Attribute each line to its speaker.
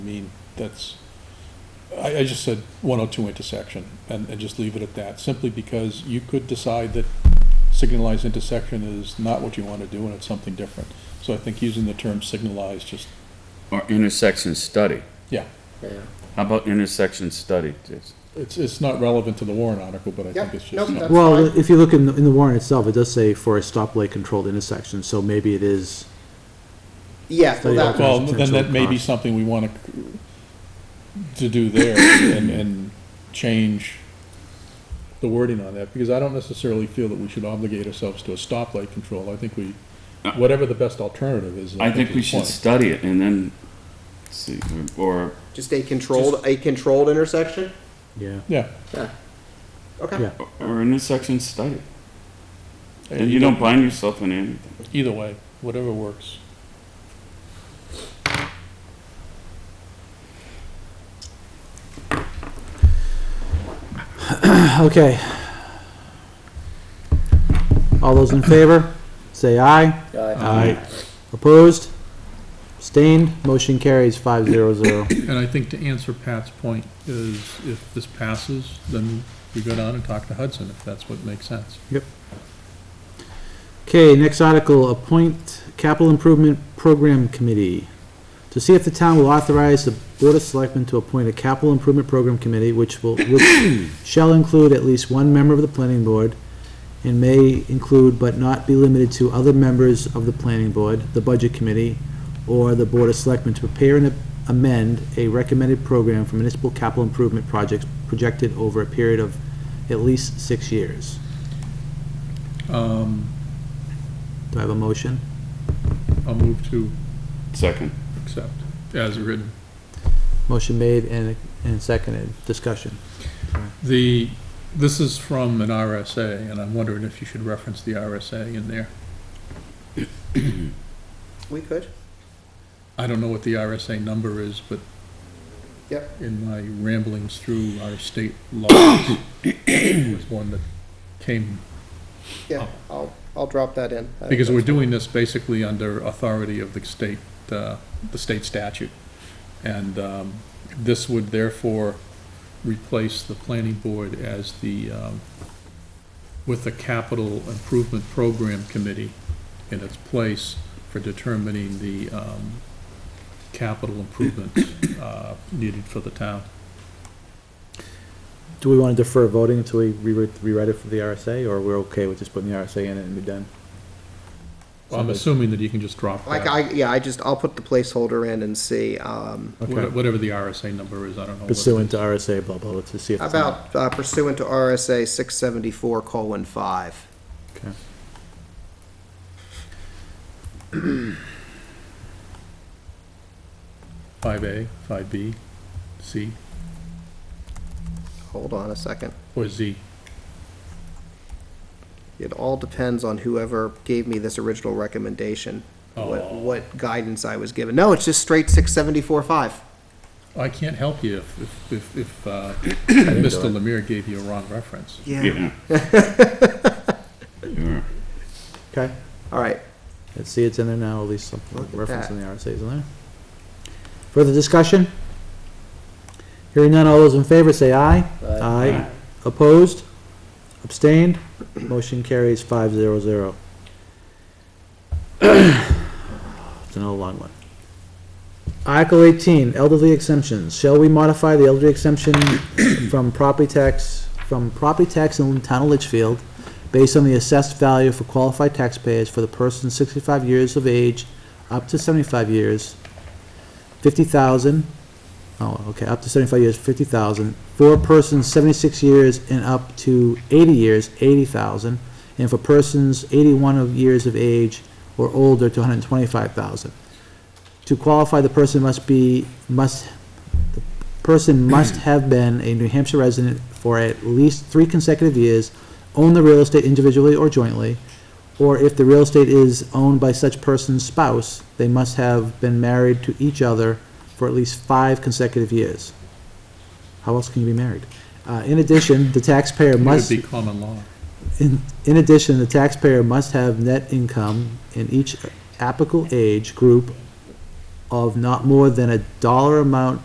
Speaker 1: I mean, that's, I, I just said 102 intersection, and, and just leave it at that, simply because you could decide that signalized intersection is not what you want to do, and it's something different. So I think using the term signalized, just,
Speaker 2: Or intersection study.
Speaker 1: yeah,
Speaker 2: How about intersection study? It's-
Speaker 1: it's, it's not relevant to the warrant article, but I think
Speaker 3: Yep,
Speaker 1: it's
Speaker 3: nope,
Speaker 1: just, something-
Speaker 3: that's-
Speaker 4: Well,
Speaker 3: fine.
Speaker 4: if you look in, the- in the warrant itself, it does say for a stoplight controlled intersection, so maybe it is,
Speaker 3: Yeah, well, that,
Speaker 4: Well,
Speaker 1: well, then that may be
Speaker 4: Potential cost.
Speaker 1: something we want to, to do there, and, and change the wording on that, because I don't necessarily feel that we should obligate ourselves to a stoplight control. I think we, whatever the best alternative is.
Speaker 2: I think we
Speaker 1: is
Speaker 2: should
Speaker 1: fine.
Speaker 2: study it and then see, or,
Speaker 3: just a controlled, a controlled intersection?
Speaker 4: yeah.
Speaker 1: Yeah.
Speaker 3: Yeah. Okay.
Speaker 4: Yeah.
Speaker 2: or intersection study. And you don't bind yourself in anything.
Speaker 1: Either way, whatever works.
Speaker 4: Okay. All those in favor, say aye.
Speaker 3: Uh,
Speaker 4: Aye. Opposed? Abstained? Motion carries five zero zero.
Speaker 1: And I think to answer Pat's point is if this passes, then we go down and talk to Hudson if that's what makes sense.
Speaker 4: Okay, next article, appoint capital improvement program committee. To see if the town will authorize the Board of Selectmen to appoint a capital improvement program committee, which will, which shall include at least one member of the planning board, and may include but not be limited to other members of the planning board, the budget committee, or the Board of Selectmen to prepare and amend a recommended program for municipal capital improvement projects projected over a period of at least six years.
Speaker 1: Um,
Speaker 4: Do I have a motion?
Speaker 1: I'll move to
Speaker 2: Second.
Speaker 1: accept as written.
Speaker 4: Motion made and, and seconded, discussion.
Speaker 1: The, this is from an RSA, and I'm wondering if you should reference the RSA in there.
Speaker 3: We could.
Speaker 1: I don't know what the RSA number is, but
Speaker 3: Yep.
Speaker 1: in my ramblings through our state laws, it was one that came
Speaker 3: Yeah, I'll, I'll drop that in. Uh, I-
Speaker 1: Oh. Because we're doing this basically under authority of the state, uh, the state statute. And um, this would therefore replace the planning board as the, um, with the capital improvement program committee in its place for determining the um, capital improvements uh, needed for the town.
Speaker 4: Do we want to defer voting until we rewrite, rewrite it for the RSA, or we're okay with just putting the RSA in it and be done?
Speaker 1: I'm assuming that you can just drop
Speaker 3: Like,
Speaker 1: that,
Speaker 3: I, yeah, I just, I'll put the placeholder in and see, um,
Speaker 4: Okay,
Speaker 1: whatever the RSA number is, I don't know. what it
Speaker 4: pursuant
Speaker 1: is.
Speaker 4: to RSA, blah, blah, blah, to see if.
Speaker 3: how
Speaker 4: it's
Speaker 3: about uh, pursuant to RSA six seventy-four colon five.
Speaker 4: Okay.
Speaker 1: Five A, five B, C,
Speaker 3: Hold on a second.
Speaker 1: or Z?
Speaker 3: It all depends on whoever gave me this original recommendation. What,
Speaker 1: Oh.
Speaker 3: what guidance I was given. No, it's just straight six seventy-four five.
Speaker 1: I can't help you if, if- if, if, uh,
Speaker 4: do
Speaker 1: Mr.
Speaker 4: it.
Speaker 1: Lemire gave you a wrong reference.
Speaker 3: Yeah.
Speaker 2: Yeah. Yeah.
Speaker 4: Okay,
Speaker 3: All right,
Speaker 4: let's see, it's in there now, at least some
Speaker 3: Look at
Speaker 4: reference
Speaker 3: that.
Speaker 4: in the RSA is in there. Further discussion? Hearing none, all those in favor say aye. Aye. Opposed? Abstained? Motion carries five zero zero. It's another long one. Article eighteen, elderly exemptions. Shall we modify the elderly exemption from property tax, from property tax in the town of Litchfield based on the assessed value for qualified taxpayers for the person sixty-five years of age up to seventy-five years, fifty thousand, oh, okay, up to seventy-five years, fifty thousand, for persons seventy-six years and up to eighty years, eighty thousand, and for persons eighty-one of years of age or older to hundred and twenty-five thousand. To qualify, the person must be, must, the person must have been a New Hampshire resident for at least three consecutive years, own the real estate individually or jointly, or if the real estate is owned by such person's spouse, they must have been married to each other for at least five consecutive years. How else can you be married? Uh, in addition, the taxpayer
Speaker 1: It would
Speaker 4: must.
Speaker 1: be common law.
Speaker 4: In, in addition, the taxpayer must have net income in each applicable age group of not more than a dollar amount